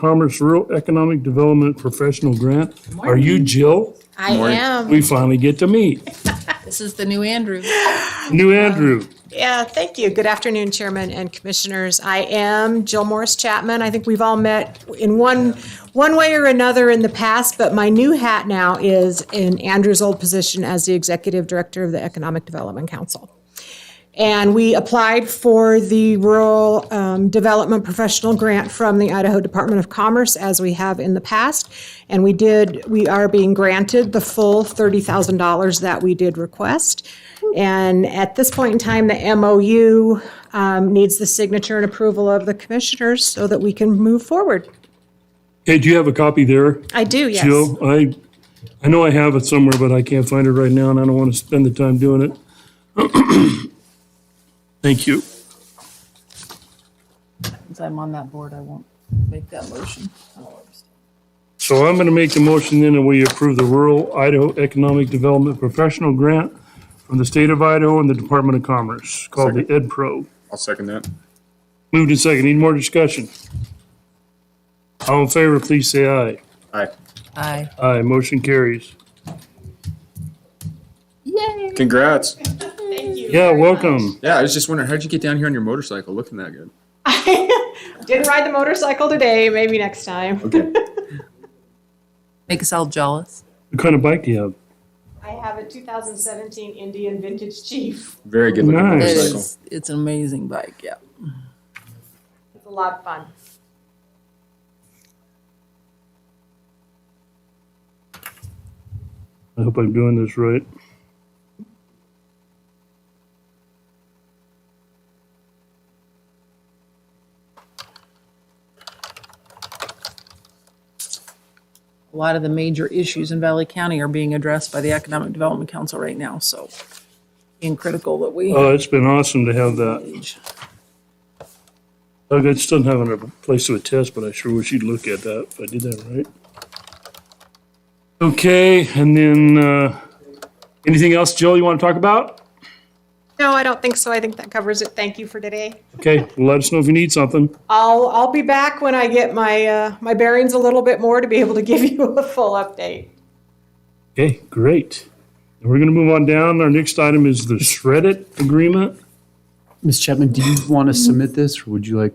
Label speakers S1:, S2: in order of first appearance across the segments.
S1: Commerce Rural Economic Development Professional Grant. Are you Jill?
S2: I
S3: Morning.
S2: am.
S1: We finally get to meet.
S2: This is the new Andrew.
S1: New Andrew.
S4: Yeah, thank you. Good afternoon, Chairman and Commissioners. I am Jill Morris Chapman. I think we've all met in one, one way or another in the past, but my new hat now is in Andrew's old position as the Executive Director of the Economic Development Council. And we applied for the Rural um, Development Professional Grant from the Idaho Department of Commerce, as we have in the past. And we did, we are being granted the full $30,000 that we did request. And at this point in time, the MOU um, needs the signature and approval of the commissioners so that we can move forward.
S1: Hey, do you have a copy there?
S2: Oh,
S4: I do, yes.
S1: Jill, I, I know I have it somewhere, but I can't find it right now, and I don't want to spend the time doing it. Thank you.
S5: Since I'm on that board, I won't make that motion.
S1: So I'm going to make the motion then that we approve the Rural Idaho Economic Development Professional Grant from the state of Idaho and the Department of Commerce, called the Ed Pro.
S3: I'll second that.
S1: Moved and second. Any more discussion? All in favor, please say aye.
S3: Aye.
S5: Aye.
S1: Aye, motion carries.
S3: Congrats.
S1: Yeah, welcome.
S3: Yeah, I was just wondering, how'd you get down here on your motorcycle looking that good?
S4: Didn't ride the motorcycle today, maybe next time.
S3: Okay.
S5: Make us all jealous.
S1: What kind of bike do you have?
S4: I have a 2017 Indian Vintage Chief.
S3: Very good looking
S1: Nice.
S5: It
S3: motorcycle.
S5: is, it's an amazing bike, yeah.
S4: It's a lot of fun.
S1: I hope I'm doing this right.
S5: A lot of the major issues in Valley County are being addressed by the Economic Development Council right now, so being critical that we
S6: Uh,
S1: Oh, it's been awesome to have that.
S5: engage.
S1: Doug, I still haven't have a place to attest, but I sure wish you'd look at that if I did that right. Okay, and then, uh, anything else, Jill, you want to talk about?
S4: No, I don't think so. I think that covers it. Thank you for today.
S1: Okay, well, let us know if you need something.
S4: I'll, I'll be back when I get my, uh, my bearings a little bit more to be able to give you a full update.
S1: Okay, great. And we're going to move on down. Our next item is the Shredit agreement.
S6: Ms. Chapman, do you want to submit this, or would you like,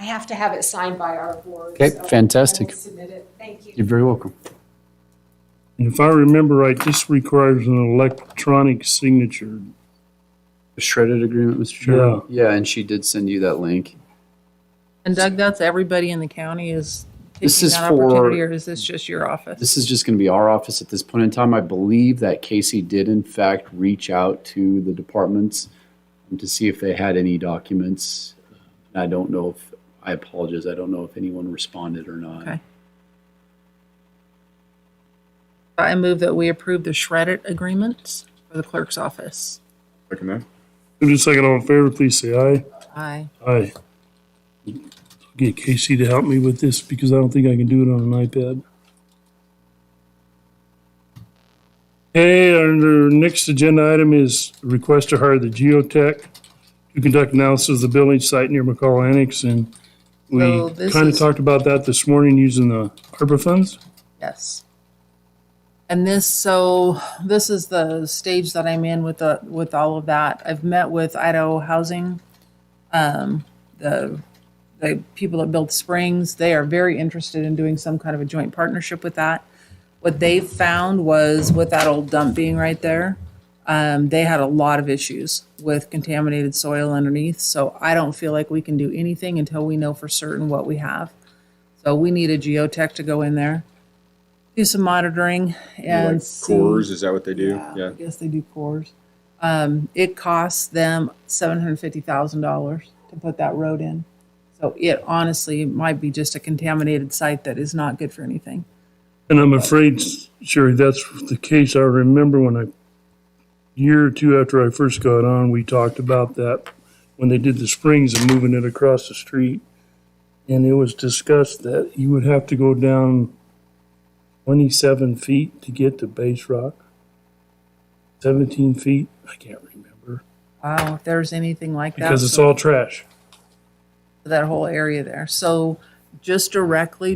S4: I have to have it signed by our board.
S6: Okay,
S4: so I will
S6: fantastic.
S4: Submit it. Thank you.
S6: you're very welcome.
S1: And if I remember right, this requires an electronic signature.
S6: The Shredded agreement, Mr. Chairman? Yeah, and she did send you that link.
S5: And Doug, that's everybody in the county is
S6: This
S5: taking
S6: is
S5: that
S6: for-
S5: opportunity, or is this just your office?
S6: This is just going to be our office at this point in time. I believe that Casey did in fact reach out to the departments to see if they had any documents. I don't know if, I apologize, I don't know if anyone responded or
S5: Okay.
S6: not.
S5: I move that we approve the shredded agreement for the clerk's office.
S3: Second that.
S1: Move to second, all in favor, please say aye.
S5: Aye.
S1: Aye. Get Casey to help me with this because I don't think I can do it on an iPad. Okay, our our next agenda item is request to hire the geotech to conduct analysis of the building site near McCall Annex. And we
S5: So this
S1: kind of
S5: is-
S1: talked about that this morning using the ARPA funds.
S5: Yes. And this, so this is the stage that I'm in with the, with all of that. I've met with Idaho Housing, um, the, the people that built Springs. They are very interested in doing some kind of a joint partnership with that. What they found was with that old dump being right there, um, they had a lot of issues with contaminated soil underneath. So I don't feel like we can do anything until we know for certain what we have. So we need a geotech to go in there, do some monitoring and
S3: Like
S5: see.
S3: cores, is that what they do?
S5: Yeah,
S3: Yeah.
S5: I guess they do cores. Um, it costs them seven hundred fifty thousand dollars to put that road in. So it honestly might be just a contaminated site that is not good for anything.
S1: And I'm afraid, Sherry, that's the case. I remember when I, year or two after I first got on, we talked about that when they did the springs and moving it across the street. And it was discussed that you would have to go down twenty-seven feet to get to base rock. Seventeen feet, I can't remember,
S5: Wow, if there's anything like that.
S1: because it's
S5: so-
S1: all trash.
S5: that whole area there. So just directly